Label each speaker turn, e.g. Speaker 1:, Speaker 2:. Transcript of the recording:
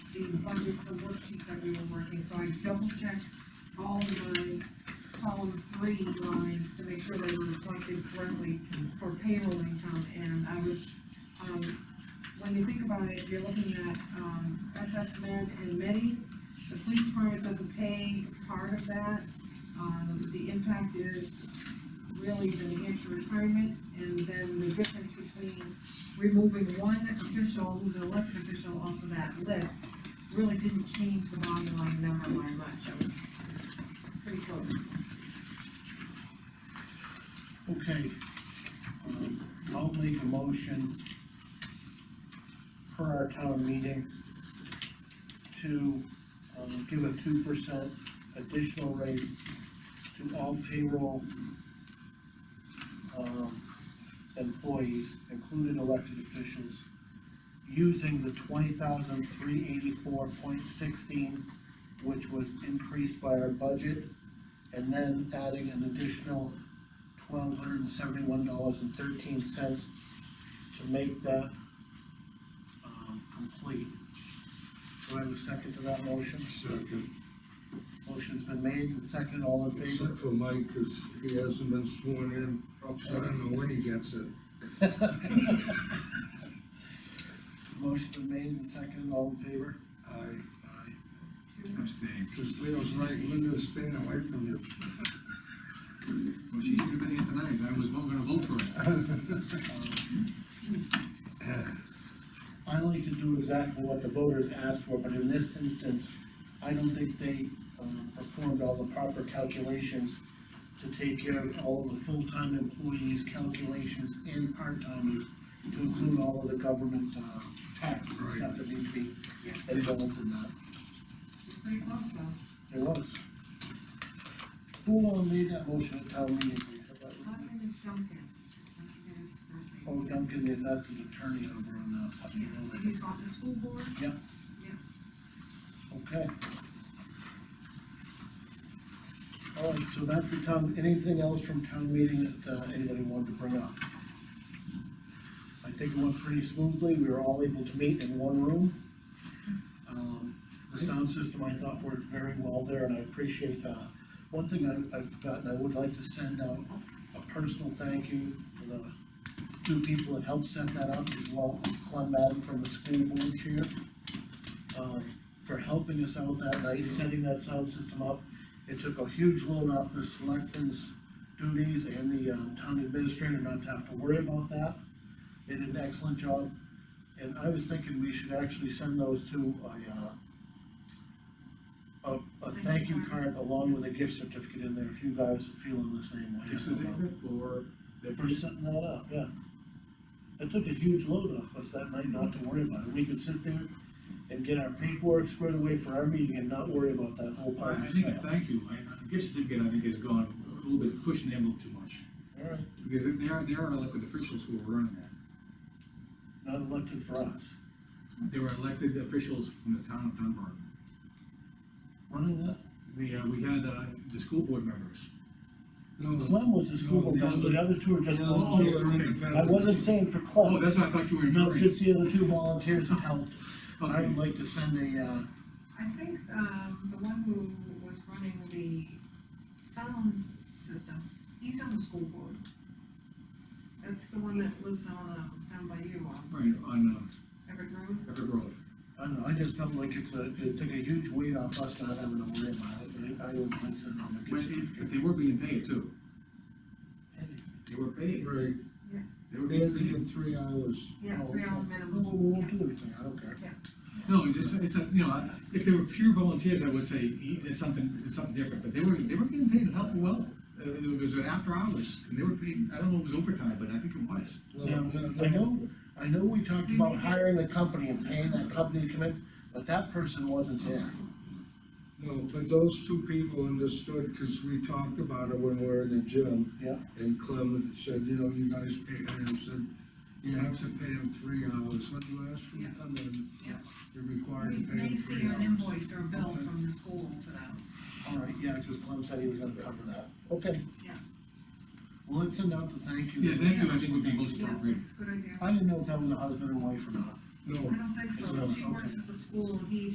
Speaker 1: the budget, the worksheet that we were working, so I double checked all the column three lines to make sure they were reflected correctly for payroll income, and I was, um, when you think about it, you're looking at, um, SS Med and Medi, the police department doesn't pay part of that, um, the impact is really the New Hampshire retirement, and then the difference between removing one official who's an elected official off of that list really didn't change the bottom line number by much, I was pretty close.
Speaker 2: Okay, um, I'll make a motion per our town meeting to, um, give a two percent additional raise to all payroll, um, employees, including elected officials, using the twenty thousand three eighty-four point sixteen, which was increased by our budget, and then adding an additional twelve hundred and seventy-one dollars and thirteen cents to make that, um, complete. Do I have a second to that motion?
Speaker 3: Second,
Speaker 2: Motion's been made and seconded, all in favor?
Speaker 3: except for Mike, because he hasn't been sworn in, so I don't know when he gets it.
Speaker 2: Motion's been made and seconded, all in favor?
Speaker 3: I,
Speaker 2: Aye.
Speaker 4: Abstain.
Speaker 3: because Leo's right, Linda's staying away from you.
Speaker 4: Well, she should have been here tonight, I was not gonna vote for it.
Speaker 2: I like to do exactly what the voters asked for, but in this instance, I don't think they, um, performed all the proper calculations to take care of all the full-time employees' calculations and part-timers, to include all of the government, uh, taxes and stuff that need to be involved in that.
Speaker 1: It's pretty close though.
Speaker 2: It was. Who uh, made that motion at town meeting?
Speaker 1: Last name is Duncan. I forget his first name.
Speaker 2: Oh, Duncan, yeah, that's an attorney over on, uh, Putney Hill.
Speaker 1: He's on the school board.
Speaker 2: Yep.
Speaker 1: Yep.
Speaker 2: Okay. All right, so that's the town, anything else from town meeting that uh, anybody wanted to bring up? I think it went pretty smoothly, we were all able to meet in one room. Um, The sound system, I thought worked very well there, and I appreciate, uh, one thing I- I've forgotten, I would like to send out a personal thank you to the two people that helped set that up, as well as Clem Madden from the school board chair um, for helping us out that night, setting that sound system up. It took a huge load off the selectmen's duties and the, um, town administrator not to have to worry about that. They did an excellent job, and I was thinking we should actually send those two a, uh, a, a thank you card along with a gift certificate in there, if you guys are feeling the same way.
Speaker 4: This is it for the
Speaker 2: For
Speaker 4: first,
Speaker 2: setting that up, yeah. It took a huge load off us that night not to worry about it. We could sit there and get our paperwork squared away for our meeting and not worry about that whole part
Speaker 4: I
Speaker 2: of
Speaker 4: think,
Speaker 2: it.
Speaker 4: thank you, I, I guess certificate, I think, has gone a little bit pushing the envelope too much.
Speaker 2: Alright,
Speaker 4: Because they are, they are elected officials who are running that.
Speaker 2: not elected for us.
Speaker 4: They were elected officials from the town of Dunbar.
Speaker 2: Running that,
Speaker 4: The, uh, we had, uh, the school board members.
Speaker 3: No,
Speaker 2: Clem was the school board member, the other two are just
Speaker 4: No, no,
Speaker 2: volunteers. I wasn't saying for
Speaker 4: Oh,
Speaker 2: Clem,
Speaker 4: that's what I thought you were
Speaker 2: no,
Speaker 4: referring.
Speaker 2: just the other two volunteers that helped. I
Speaker 4: Okay.
Speaker 2: would like to send a, uh,
Speaker 1: I think, um, the one who was running the sound system, he's on the school board. That's the one that lives on, um, down by you, on
Speaker 4: Right, on,
Speaker 1: Everett Road.
Speaker 4: uh, Everett Road.
Speaker 2: I don't know, I just felt like it's a, it took a huge weight off us not having to worry about it. I, I would like to send them a
Speaker 4: But
Speaker 2: gift
Speaker 4: if,
Speaker 2: certificate.
Speaker 4: if they were being paid too, they were paid,
Speaker 3: right,
Speaker 4: they were
Speaker 3: they had
Speaker 4: being
Speaker 3: to
Speaker 4: paid.
Speaker 3: give three hours.
Speaker 1: Yeah, three hour minimum.
Speaker 2: Oh, We'll, we'll do everything, I don't care.
Speaker 4: No, it's just, it's a, you know, if they were pure volunteers, I would say e- it's something, it's something different, but they were, they were getting paid a hell of well. Uh, It was an after hours, and they were paid, I don't know if it was overtime, but I think it was.
Speaker 3: No,
Speaker 2: Yeah,
Speaker 3: no, no.
Speaker 2: I know, I know we talked about hiring a company and paying that company to come in, but that person wasn't there.
Speaker 3: No, but those two people understood, because we talked about it when we were in the gym,
Speaker 2: Yeah.
Speaker 3: and Clem said, you know, you guys pay, and I said, you have to pay him three hours, when you ask him to come in,
Speaker 1: Yeah.
Speaker 3: you're required
Speaker 1: We
Speaker 3: to pay
Speaker 1: may
Speaker 3: him
Speaker 1: see
Speaker 3: three
Speaker 1: an
Speaker 3: hours.
Speaker 1: invoice or a bill from the school for those.
Speaker 2: All right, yeah, because Clem said he was gonna cover that. Okay.
Speaker 1: Yeah.
Speaker 2: Well, let's send out the thank you.
Speaker 4: Yeah, thank you, I think would be most appropriate.
Speaker 1: That's a good idea.
Speaker 2: I didn't know if that was a husband and wife or not.
Speaker 3: No,
Speaker 1: I don't think
Speaker 2: It's
Speaker 1: so,
Speaker 2: not-
Speaker 1: she works at the school, and he